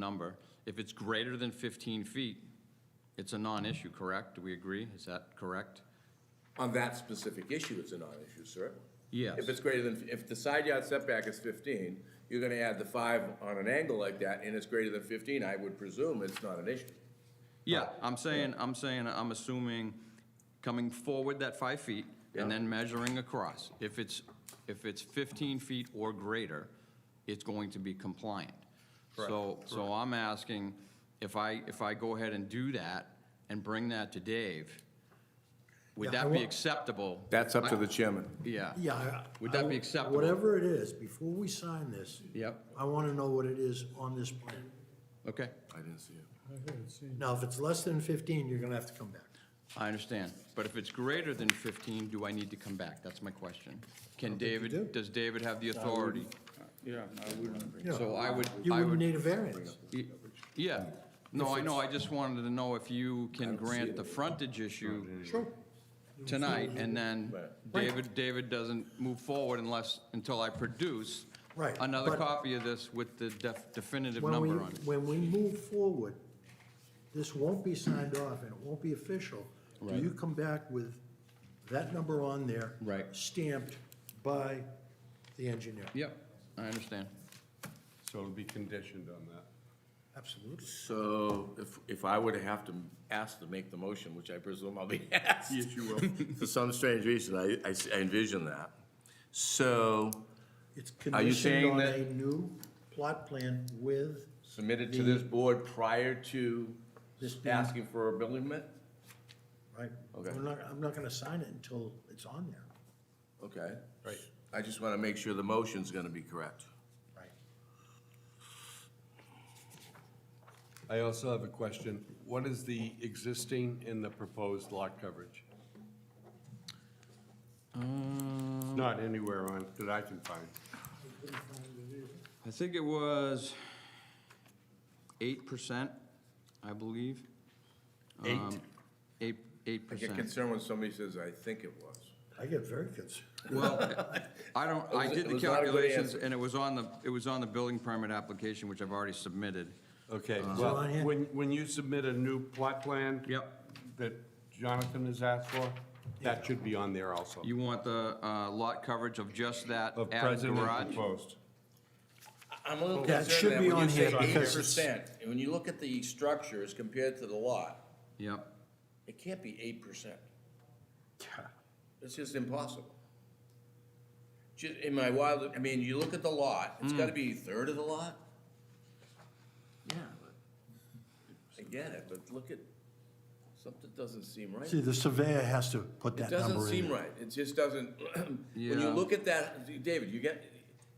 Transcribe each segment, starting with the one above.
number. If it's greater than 15 feet, it's a non-issue, correct? Do we agree? Is that correct? On that specific issue, it's a non-issue, sir. Yes. If it's greater than, if the side yard setback is fifteen, you're gonna add the five on an angle like that, and it's greater than fifteen, I would presume it's not an issue. Uh, Yeah, I'm saying, I'm saying, I'm assuming coming forward that five feet and Yeah. then measuring across. If it's, if it's 15 feet or greater, it's going to be compliant. So, so I'm asking, if I, if I go ahead and do that and bring that to Dave, would Yeah, I that be wa- acceptable? That's up to the chairman. Yeah. Yeah. I- Would that be I- acceptable? Whatever it is, before we sign this. Yep. I want to know what it is on this plan. Okay, I didn't see it. Now, if it's less than 15, you're going to have to come back. I understand. But if it's greater than 15, do I need to come back? That's my question. Can David, does David have the authority? Yeah, I wouldn't. So I would, You I wouldn't would, need a variance. y- yeah. No, I know, I just wanted to know if you can grant the frontage issue Sure. tonight, and then Right. David, David doesn't move forward unless, until I produce Right, another but- copy of this with the def- definitive When we, number on it. when we move forward, this won't be signed off and it won't be official. Do you come back with that number on there? Right. Stamped by the engineer? Yep, I understand. So it'll be conditioned on that. Absolutely. So if, if I were to have to ask to make the motion, which I presume I'll be asked. Yes, you will. For some strange reason, I, I s- I envision that. So It's Are you conditioned saying on that- a new plot plan with, submitted to this board prior to This being- asking for a building permit? right? Okay. We're not, I'm not going to sign it until it's on there. Okay. Right. I just want to make sure the motion's going to be correct. Right. I also have a question. What is the existing and the proposed lot coverage? Um, Not anywhere on, that I can find. I think it was 8%, I believe. Um, Eight? Eight, eight I get percent. concerned when somebody says, I think it was. I get very concerned. Well, I don't, I was- did it the was not a good calculations, answer. and it was on the, it was on the building permit application, which I've already submitted. Okay, So well, I had- when, when you submit a new plot plan. Uh, Yep. That Jonathan has asked for, that should be on there also. You want the uh, lot coverage of just that Of added present and garage? proposed. I'm a little That should concerned that be when on you say here eight because percent, and when you look at the structures compared to the lot, Yep. it can't be eight percent. It's just impossible. Ju- in my wild, I mean, you look at the lot, it's Mm. gotta be a third of the lot? Yeah, but, I get it, but look at, something doesn't seem right. See, the surveyor has to put that It number in. doesn't seem there. right, it just doesn't, when Yeah. you look at that, David, you get,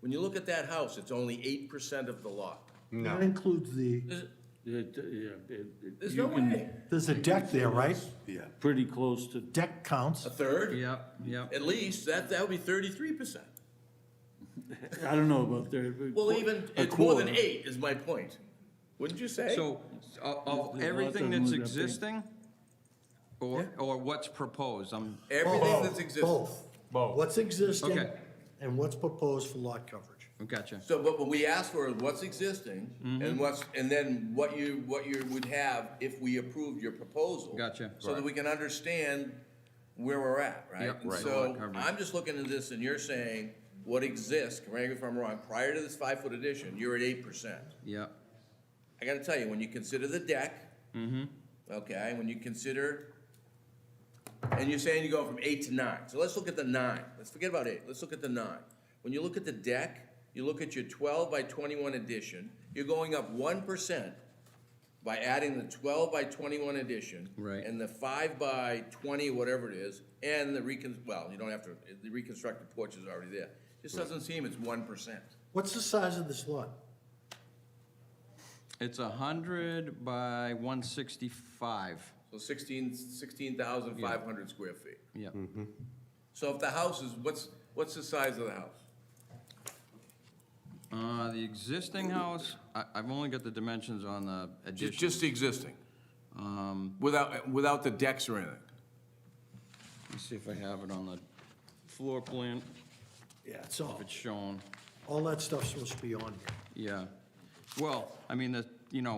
when you look at that house, it's only eight percent of the lot. That includes the, uh, There's no way, there's a deck there, right? Yeah. Pretty close to, Deck counts. a third, Yep, yep. at least, that, that would be thirty-three percent. I don't know about there. but Well, qu- even, a it's more than quarter. eight is my point, wouldn't you say? So uh, of- of There's everything that's lots of them that big. existing, or, or what's proposed, I'm, Everything that's existing. Both. Both. What's existing Okay. and what's proposed for lot coverage. gotcha. So, but what we ask for is what's existing Mm-hmm. and what's, and then what you, what you would have if we approved your proposal. Gotcha. So that we can understand where we're at, right? Yep, And right. So Lot coverage. I'm just looking at this and you're saying what exists, correct me if I'm wrong, prior to this five foot addition, you're at eight percent. Yep, I gotta tell you, when you consider the deck. Okay, when you consider, and you're saying you go from eight to nine, so let's look at the nine, let's forget about eight, let's look at the nine. When you look at the deck, you look at your twelve by twenty-one addition, you're going up one percent by adding the twelve by twenty-one addition. Right. And the five by twenty, whatever it is, and the recon, well, you don't have to, the reconstructed porch is already there. Just doesn't seem it's one percent. What's the size of this lot? it's a hundred by one sixty-five, So sixteen, sixteen thousand five hundred square feet. yep. So if the house is, what's, what's the size of the house? Uh, the existing house, I, I've only got the dimensions on the addition. um, the existing? Without, without the decks or anything? Let me see if I have it on the floor plan, Yeah, it's if all, it's shown. all that stuff's supposed to be on here. Yeah. Well, I mean, the, you know,